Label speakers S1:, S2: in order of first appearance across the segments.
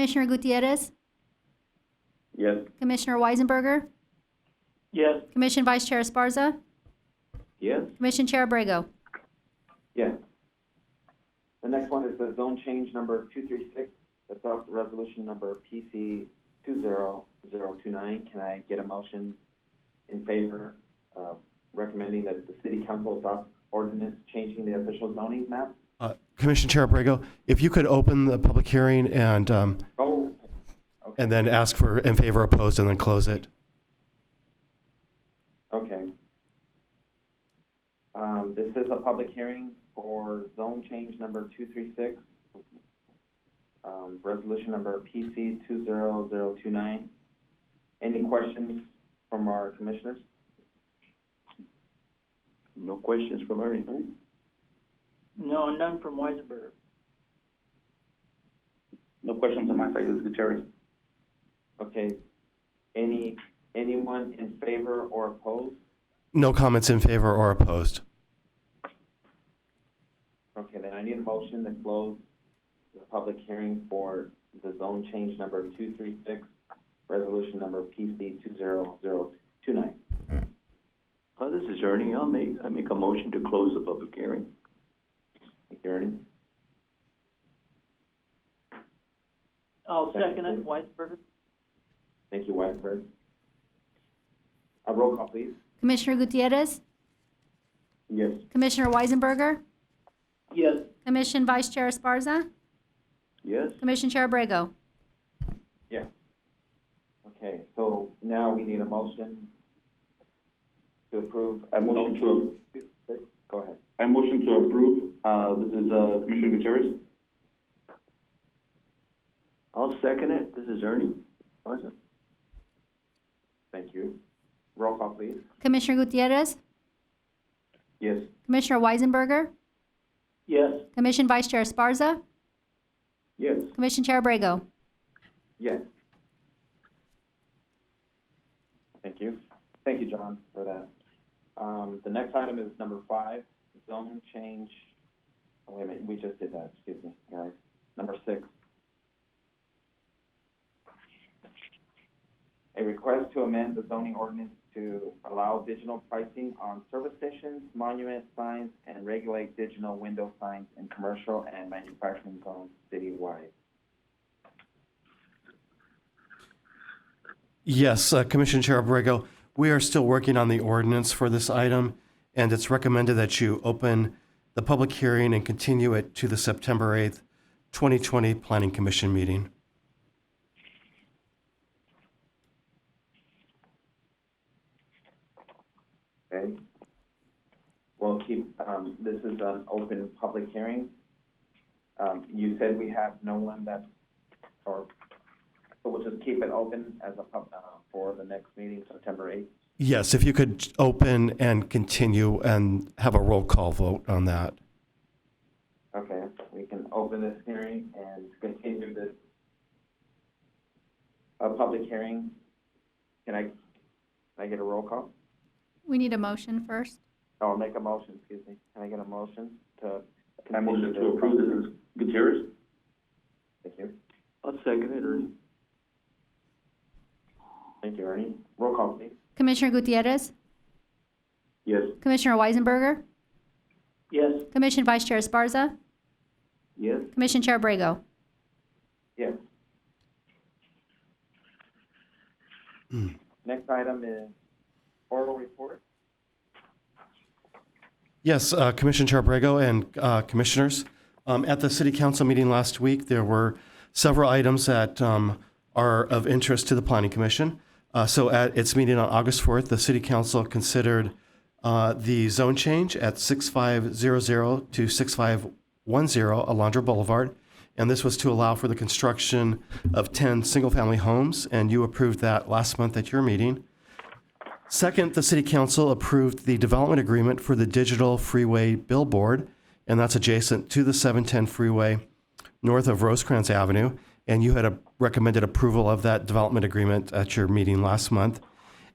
S1: Commissioner Gutierrez,
S2: Yes.
S1: Commissioner Weisenberger,
S2: Yes.
S1: Commission Vice Chair Esparza,
S2: Yes.
S1: Commission Chair Abrego.
S3: Yes. The next one is the zone change number two three six, that's off the resolution number PC two zero zero two nine. Can I get a motion in favor of recommending that the city council adopt ordinance changing the official zoning map?
S4: Uh, Commissioner Chair Abrego, if you could open the public hearing and, um,
S3: Oh, okay,
S4: and then ask for in favor, opposed, and then close it.
S3: okay. Um, this is a public hearing for zone change number two three six, um, resolution number PC two zero zero two nine. Any questions from our commissioners?
S2: No questions from our end?
S5: No, none from Weisenberger.
S2: No questions on my side, this is Gutierrez.
S3: Okay, any, anyone in favor or opposed?
S4: No comments in favor or opposed.
S3: Okay, then I need a motion to close the public hearing for the zone change number two three six, resolution number PC two zero zero two nine.
S2: Uh, this is Ernie, I'll make, I make a motion to close the public hearing.
S3: Thank you, Ernie.
S5: I'll Oh, second it, Weisenberger.
S3: Thank you, Wagner. A roll call, please.
S1: Commissioner Gutierrez,
S3: Yes.
S1: Commissioner Weisenberger,
S5: Yes.
S1: Commission Vice Chair Esparza,
S2: Yes?
S1: Commission Chair Abrego.
S3: Okay, so now we need a motion to approve.
S6: I motion to,
S3: Go ahead.
S6: I motion to approve, uh, this is, uh, Commissioner Gutierrez.
S2: I'll second it, this is Ernie. Awesome.
S3: Thank you. Roll call, please.
S1: Commissioner Gutierrez,
S3: Yes.
S1: Commissioner Weisenberger,
S5: Yes.
S1: Commission Vice Chair Esparza,
S2: Yes.
S1: Commission Chair Abrego.
S3: Yes. Thank you. Thank you, John, for that. Um, the next item is number five, zone change. oh, Wait a minute, we just did that, excuse me, guys. Number six. A request to amend the zoning ordinance to allow digital pricing on service stations, monument signs, and regulate digital window signs in commercial and manufacturing zones citywide.
S4: Yes, uh, Commissioner Chair Abrego, we are still working on the ordinance for this item, and it's recommended that you open the public hearing and continue it to the September 8th, 2020 Planning Commission meeting.
S3: Okay. We'll keep, um, this is an open public hearing. Um, you said we have no one that, or, so we'll just keep it open as a pub, uh, for the next meeting, September eighth.
S4: Yes, if you could open and continue and have a roll call vote on that.
S3: Okay, we can open this hearing and continue this, uh, public hearing. Can I, can I get a roll call?
S1: We need a motion first.
S3: Oh, make a motion, excuse me. Can I get a motion to?
S6: I motion to
S3: continue this?
S6: approve, this is Gutierrez.
S3: Thank you.
S2: I'll second it, Ernie.
S3: Thank you, Ernie. Roll call, please.
S1: Commissioner Gutierrez,
S2: Yes.
S1: Commissioner Weisenberger,
S5: Yes.
S1: Commission Vice Chair Esparza,
S2: Yes?
S1: Commission Chair Abrego.
S3: Yes. Next item is oral report.
S4: Yes, uh, Commissioner Chair Abrego and uh, Commissioners, um, at the City Council meeting last week, there were several items that um, are of interest to the Planning Commission. Uh, So at its meeting on August 4th, the City Council considered uh, the zone change at 6500 to 6510 Alondra Boulevard, and this was to allow for the construction of 10 single-family homes, and you approved that last month at your meeting. Second, the city council approved the development agreement for the digital freeway billboard, and that's adjacent to the 710 freeway north of Rosecrans Avenue. And you had a recommended approval of that development agreement at your meeting last month.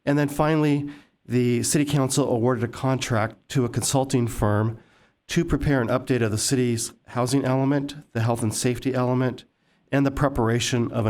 S4: And then finally, the city council awarded a contract to a consulting firm to prepare an update of the city's housing element, the health and safety element, and the preparation of